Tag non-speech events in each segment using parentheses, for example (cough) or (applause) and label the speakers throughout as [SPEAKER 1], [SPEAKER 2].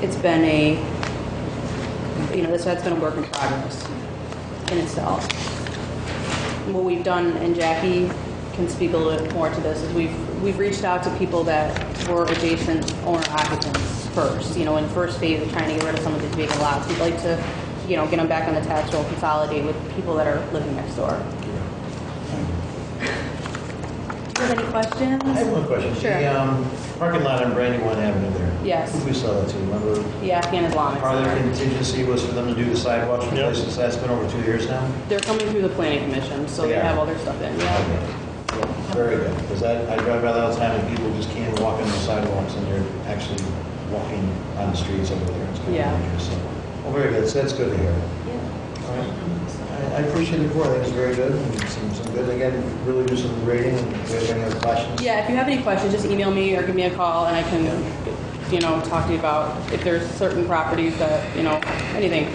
[SPEAKER 1] it's been a, you know, this, that's been a work in progress in itself. What we've done, and Jackie can speak a little bit more to this, is we've, we've reached out to people that were adjacent owner occupants first. You know, in first phase of trying to get rid of some of these vacant lots, we'd like to, you know, get them back on the tax roll, consolidate with people that are living next door. Do you have any questions?
[SPEAKER 2] I have one question.
[SPEAKER 1] Sure.
[SPEAKER 2] The um, parking lot on Brandywine Avenue there.
[SPEAKER 1] Yes.
[SPEAKER 2] Who we sell that to, remember?
[SPEAKER 1] The Afghan Islamic
[SPEAKER 2] Part of their
[SPEAKER 1] Center.
[SPEAKER 2] contingency was for them to do the sidewalks
[SPEAKER 3] Yeah.
[SPEAKER 2] replacements. That's been over two years now?
[SPEAKER 1] They're coming through the planning commission, so they
[SPEAKER 2] They are.
[SPEAKER 1] have all their stuff in, yeah.
[SPEAKER 2] Okay. Cool. Very good, because I I drive by that all the time, and people just can't walk on the sidewalks, and they're actually walking on the streets over there. It's kind
[SPEAKER 1] Yeah.
[SPEAKER 2] of dangerous. so. Well, very good, so that's good to hear. All right. I I appreciate the report, I think it's very good, and some some good, again, really do some grading, and if you have any other questions.
[SPEAKER 1] Yeah, if you have any questions, just email me or give me a call and I can, you know, talk to you about if there's certain properties that, you know, anything.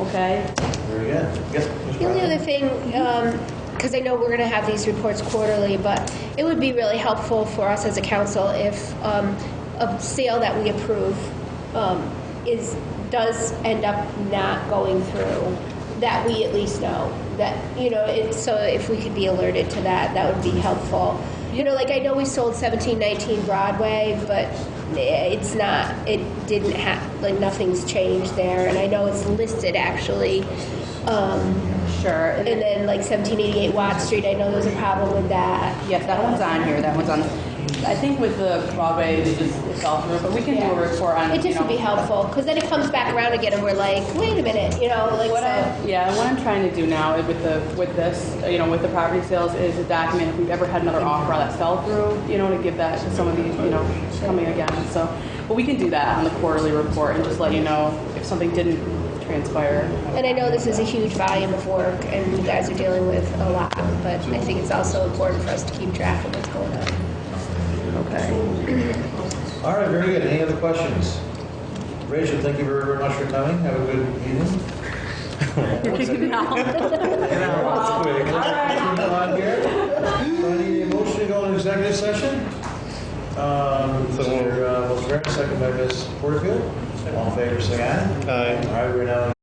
[SPEAKER 1] Okay?
[SPEAKER 2] Very good. Yes, Ms.
[SPEAKER 4] The
[SPEAKER 2] Bradley?
[SPEAKER 4] only other thing, because I know we're going to have these reports quarterly, but it would be really helpful for us as a council if um, a sale that we approve um, is, does end up not going through, that we at least know, that, you know, it- so if we could be alerted to that, that would be helpful. You know, like, I know we sold 1719 Broadway, but it's not, it didn't have, like, nothing's changed there, and I know it's listed actually. um,
[SPEAKER 1] Sure.
[SPEAKER 4] and then like 1788 Watt Street, I know there was a problem with that.
[SPEAKER 1] Yes, that one's on here, that one's on. I think with the Broadway, they just, it fell through, but we can do a report on,
[SPEAKER 4] It
[SPEAKER 1] you
[SPEAKER 4] just
[SPEAKER 1] know.
[SPEAKER 4] would be helpful, because then it comes back around again and we're like, wait a minute, you know, like,
[SPEAKER 1] What I,
[SPEAKER 4] so.
[SPEAKER 1] yeah, what I'm trying to do now is with the, with this, you know, with the property sales is to document if we've ever had another offer that fell through, you know, to give that to some of these, you know, coming again, so. But we can do that on the quarterly report and just let you know if something didn't transpire.
[SPEAKER 4] And I know this is a huge volume of work and you guys are dealing with a lot, but I think it's also important for us to keep track of what's going on.
[SPEAKER 1] Okay.
[SPEAKER 2] All right, very good. Any other questions? Rachel, thank you very, very much for coming. Have a good evening.
[SPEAKER 1] (laughs) You're kicking me out.
[SPEAKER 2] That's quick. Moving on here. So I need a motion to go into executive session. Um,
[SPEAKER 3] So moved.
[SPEAKER 2] Mr. Wilson, second by Ms. Porterfield. All in favor, say aye.
[SPEAKER 3] Aye.
[SPEAKER 2] All right, we're now in